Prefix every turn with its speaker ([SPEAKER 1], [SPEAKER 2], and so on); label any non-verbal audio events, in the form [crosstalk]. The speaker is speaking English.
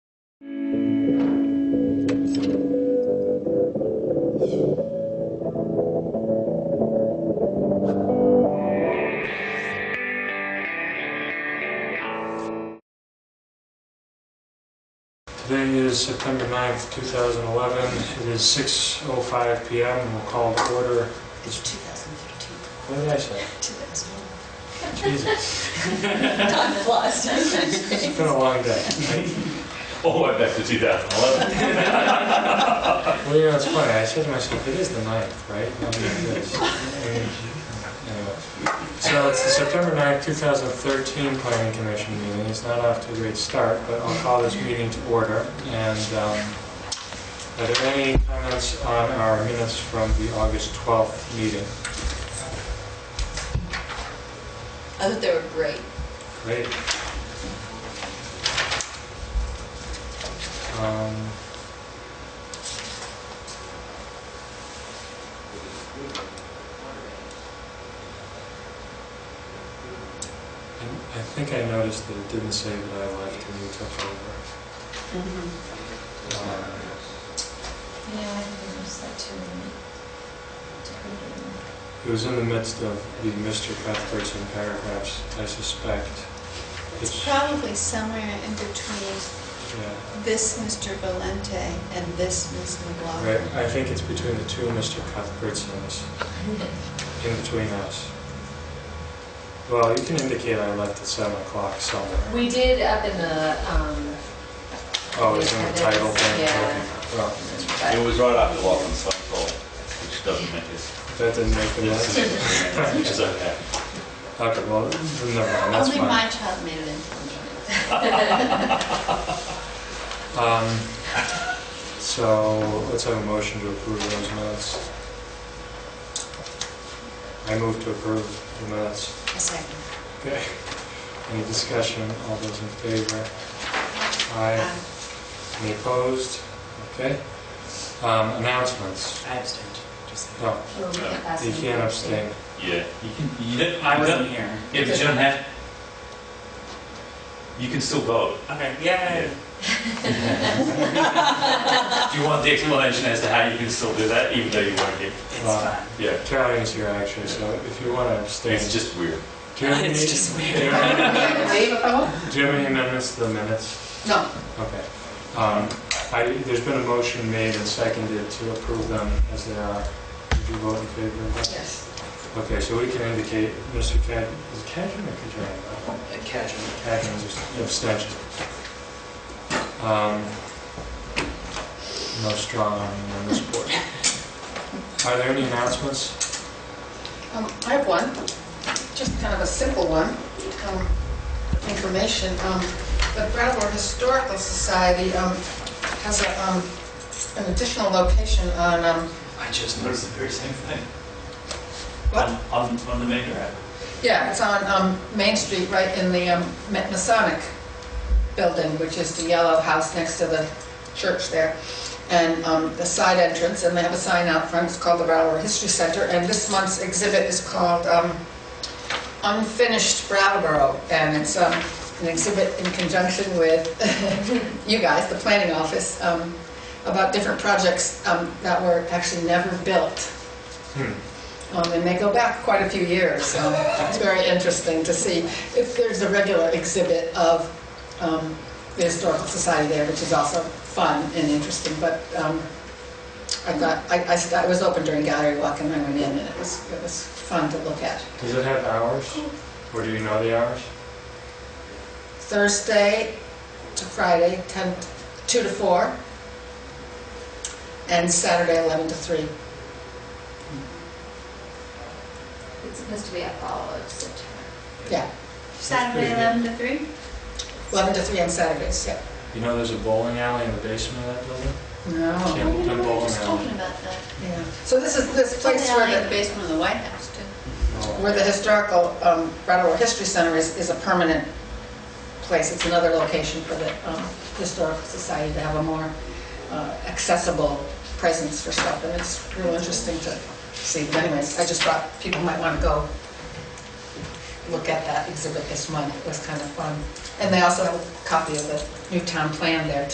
[SPEAKER 1] Today is September 9th, 2011. It is 6:05 PM. and We'll call to order.
[SPEAKER 2] It's 2013,
[SPEAKER 1] What did I say?
[SPEAKER 2] 2001.
[SPEAKER 1] Jesus,
[SPEAKER 2] Time
[SPEAKER 3] [laughs]
[SPEAKER 2] flies.
[SPEAKER 1] it's been a long day.
[SPEAKER 4] Oh, I back to 2011.
[SPEAKER 1] Well, you know, it's funny. I said to myself, it is the 9th, right? Nobody is. And, anyway. So it's the September 9th, 2013 Planning Commission meeting. It's not off to a great start, but I'll call this meeting to order. And um, are there any comments on our minutes from the August 12th meeting?
[SPEAKER 2] I thought they were great.
[SPEAKER 1] Great. Um, and I think I noticed that it didn't say that I left and you took over. Um,
[SPEAKER 2] Yeah, I noticed that too. Did
[SPEAKER 1] It was in the midst of the Mr. Cuthbertson paragraphs, I suspect.
[SPEAKER 5] It's
[SPEAKER 1] It's,
[SPEAKER 5] probably somewhere in between
[SPEAKER 1] yeah.
[SPEAKER 5] this Mr. Valente and this Ms.
[SPEAKER 1] Right,
[SPEAKER 5] McLaughlin.
[SPEAKER 1] I think it's between the two Mr. Cuthbertsons, in between us. Well, you can indicate I left at seven o'clock somewhere.
[SPEAKER 6] We did up in the, um,
[SPEAKER 1] Oh, it's in the title thing?
[SPEAKER 6] Yeah.
[SPEAKER 1] Okay. Well,
[SPEAKER 4] It was right after Lachlan Cycle, which doesn't make us,
[SPEAKER 1] that didn't make the
[SPEAKER 4] it's-
[SPEAKER 1] list.
[SPEAKER 4] it's- which is okay.
[SPEAKER 1] Okay, well, then never mind, that's
[SPEAKER 5] Only my
[SPEAKER 1] fine.
[SPEAKER 5] child made it into
[SPEAKER 1] Um, So, let's have a motion to approve those minutes. I move to approve the minutes.
[SPEAKER 5] a second.
[SPEAKER 1] Okay. Any discussion? All those in favor? Aye.
[SPEAKER 5] Um,
[SPEAKER 1] Any opposed? Okay. Um, Announcements.
[SPEAKER 3] I abstained, just so you
[SPEAKER 1] No,
[SPEAKER 6] where we got past
[SPEAKER 1] you
[SPEAKER 6] the-
[SPEAKER 1] can't abstain.
[SPEAKER 4] Yeah.
[SPEAKER 3] know. You can, you
[SPEAKER 4] Yeah,
[SPEAKER 3] didn't,
[SPEAKER 4] I
[SPEAKER 3] I wasn't here.
[SPEAKER 4] Yeah, but you don't have, you can still vote.
[SPEAKER 3] Okay, yay.
[SPEAKER 4] Do you want the explanation as to how you can still do that, even though you weren't here?
[SPEAKER 3] It's
[SPEAKER 1] Wow.
[SPEAKER 3] fine.
[SPEAKER 4] Yeah.
[SPEAKER 1] Carolyn is here actually, so if you want to abstain.
[SPEAKER 4] It's just weird.
[SPEAKER 1] Do you have
[SPEAKER 3] It's
[SPEAKER 1] any-
[SPEAKER 3] just
[SPEAKER 1] do you
[SPEAKER 3] weird.
[SPEAKER 1] have
[SPEAKER 2] Dave, if I want?
[SPEAKER 1] any- Do you have any amendments to the minutes?
[SPEAKER 2] No.
[SPEAKER 1] Okay. Um, I, there's been a motion made and seconded to approve them as they are. Did you vote in favor of that?
[SPEAKER 2] Yes.
[SPEAKER 1] Okay, so we can indicate, Mr. Cad, is it Cadran or Cadran?
[SPEAKER 3] Casual.
[SPEAKER 1] Adams is abstention. Um, No strong arm on this board. Are there any announcements?
[SPEAKER 2] Um, I have one, just kind of a simple one, um, information. Um, The Brattleboro Historical Society um, has a, um, an additional location on, um,
[SPEAKER 3] I just noticed the very same thing.
[SPEAKER 2] What?
[SPEAKER 3] On, on- on the main drive.
[SPEAKER 2] yeah, it's on um, Main Street, right in the um, Ma- Masonic building, which is the yellow house next to the church there, and um, the side entrance, and they have a sign out front, it's called the Brattleboro History Center, and this month's exhibit is called um, Unfinished Brattleboro, and it's um, an exhibit in conjunction with [laughs] you guys, the planning office, um, about different projects um, that were actually never built. Um, And they go back quite a few years, so it's very interesting to see. If there's a regular exhibit of um, the Historical Society there, which is also fun and interesting, but um, I thought, I- I, st- I was open during gallery walk and I went in and it was, it was fun to look at.
[SPEAKER 1] Does it have hours? Or do you know the hours?
[SPEAKER 2] Thursday to Friday, 10, 2 to 4, and Saturday, 11 to 3.
[SPEAKER 6] It's supposed to be up all of September.
[SPEAKER 2] Yeah,
[SPEAKER 5] Saturday, 11 to 3?
[SPEAKER 2] 11 to 3 on Saturdays, yeah.
[SPEAKER 1] You know there's a bowling alley in the basement of that building?
[SPEAKER 2] No.
[SPEAKER 5] Oh.
[SPEAKER 1] Yeah, we've done bowling
[SPEAKER 5] just
[SPEAKER 1] alley.
[SPEAKER 5] talking about that.
[SPEAKER 2] Yeah. So this is,
[SPEAKER 5] Place
[SPEAKER 2] this place
[SPEAKER 5] down
[SPEAKER 2] where
[SPEAKER 5] in the
[SPEAKER 2] the,
[SPEAKER 5] basement of the White House, too.
[SPEAKER 2] where the historical um, Brattleboro History Center is, is a permanent place. It's another location for the um, Historical Society to have a more uh, accessible presence for stuff. And it's real interesting to see. But anyways, I just thought people might want to go look at that exhibit this month. It was kind of fun. And they also have a copy of the new town plan there,